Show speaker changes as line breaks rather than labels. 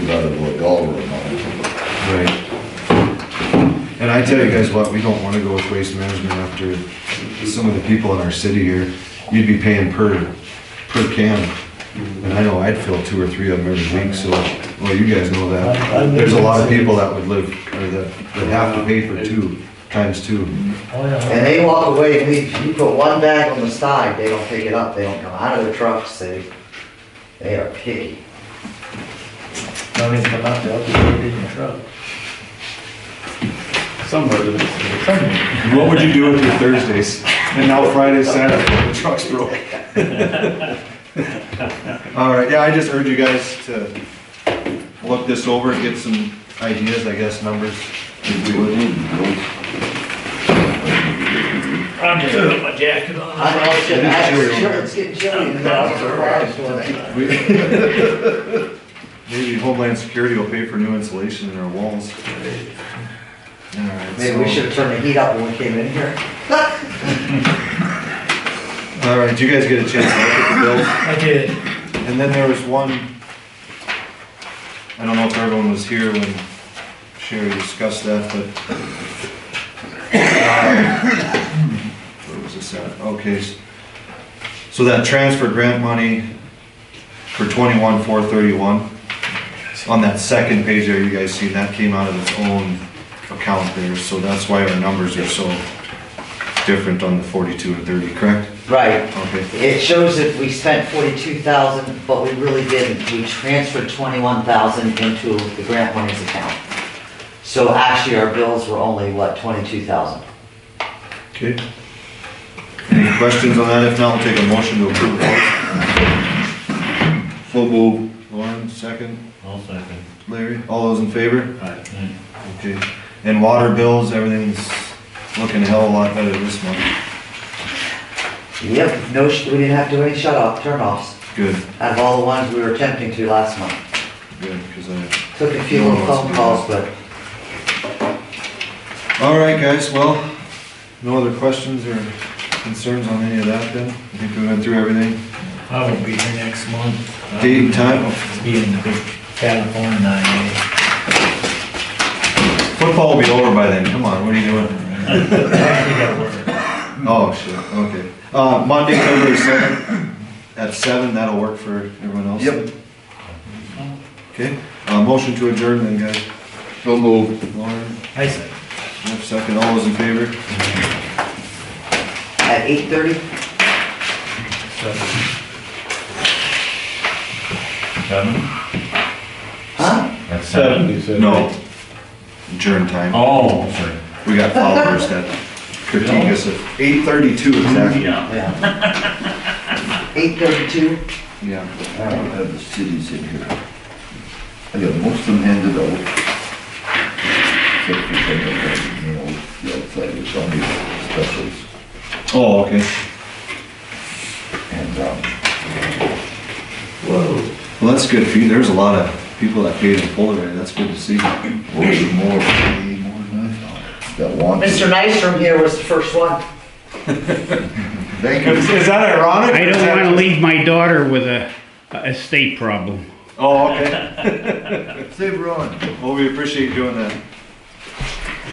rather look over them all.
Right. And I tell you guys what, we don't wanna go with waste management after some of the people in our city here, you'd be paying per, per can. And I know I'd fill two or three of them every week, so, well, you guys know
I- I
that.
live
There's a
in
lot of
cities.
people that would live, or that, that have to pay for two, times two.
Oh, yeah.
And they walk away, and we, you put one bag on the side, they don't pick it up, they don't come out of their trucks, they, they are picky.
Don't even come out, they'll just put it in your truck.
Somewhere to this. Somewhere.
What would you do with your Thursdays? And now Friday, Saturday, the trucks broke. All right, yeah, I just urge you guys to look this over and get some ideas, I guess, numbers.
If we would need those.
I'm just gonna put my jacket on.
I know, it's getting-
It's chilly over
it's chill-
here.
it's getting chilly in the garage tonight.
We- Maybe Homeland Security will pay for new insulation in our walls. All right,
Maybe we
so-
should have turned the heat up when we came in here.
All right, do you guys get a chance to look at the bills?
I did.
And then there was one, I don't know if everyone was here when Sherry discussed that, but. um, Where was this at? Okay. s- So that transfer grant money for twenty-one, four thirty-one, on that second page there, you guys seen, that came out of its own account there, so that's why our numbers are so different on the forty-two and thirty, correct?
Right,
Okay.
it shows that we spent forty-two thousand, but we really didn't, we transferred twenty-one thousand into the grant monies account. So actually, our bills were only, what, twenty-two thousand?
Okay. Any questions on that? If not, we'll take a motion to approve. So move. Lauren, second.
I'll second.
Larry, all those in favor?
Aye.
Okay. And water bills, everything's looking a hell of a lot better this month.
Yep, no, sh- we didn't have to do any shut-off, turn-offs,
Good,
out of all the ones we were attempting to last month.
good, because I...
Took a few little phone calls, but
All right, guys, well, no other questions or concerns on any of that then? I think we went through everything.
I won't be here next month.
Date and time?
I'll Be in the big California nine days.
Football will be over by then, come on, what are you doing?
You gotta work.
Oh, shit, okay. Uh, Monday, February seventh, at seven, that'll work for everyone else? Yep. Okay, uh, motion to adjourn then, guys.
So moved.
Lauren,
I said.
Jeff, second, all those in favor?
at eight thirty,
Seven?
huh?
That's seven. you said?
No. Adjourn time.
Oh, sorry.
We got followers that critique us at eight thirty-two exactly.
Yeah.
Yeah. Eight thirty-two,
Yeah.
I don't have the cities in here. I got most of them handed out. Except for some of them, you know, the outside was on these specials.
Oh, okay.
And, um,
Well, that's good for you. There's a lot of people that paid in full already. That's good to see.
was it more, way more than I thought? That wants.
Mr. Nice from here was the first one.
Thank you.
that ironic?
I don't want to leave my daughter with a, a estate problem.
Oh, okay.
Save Ron.
Well, we appreciate you doing that.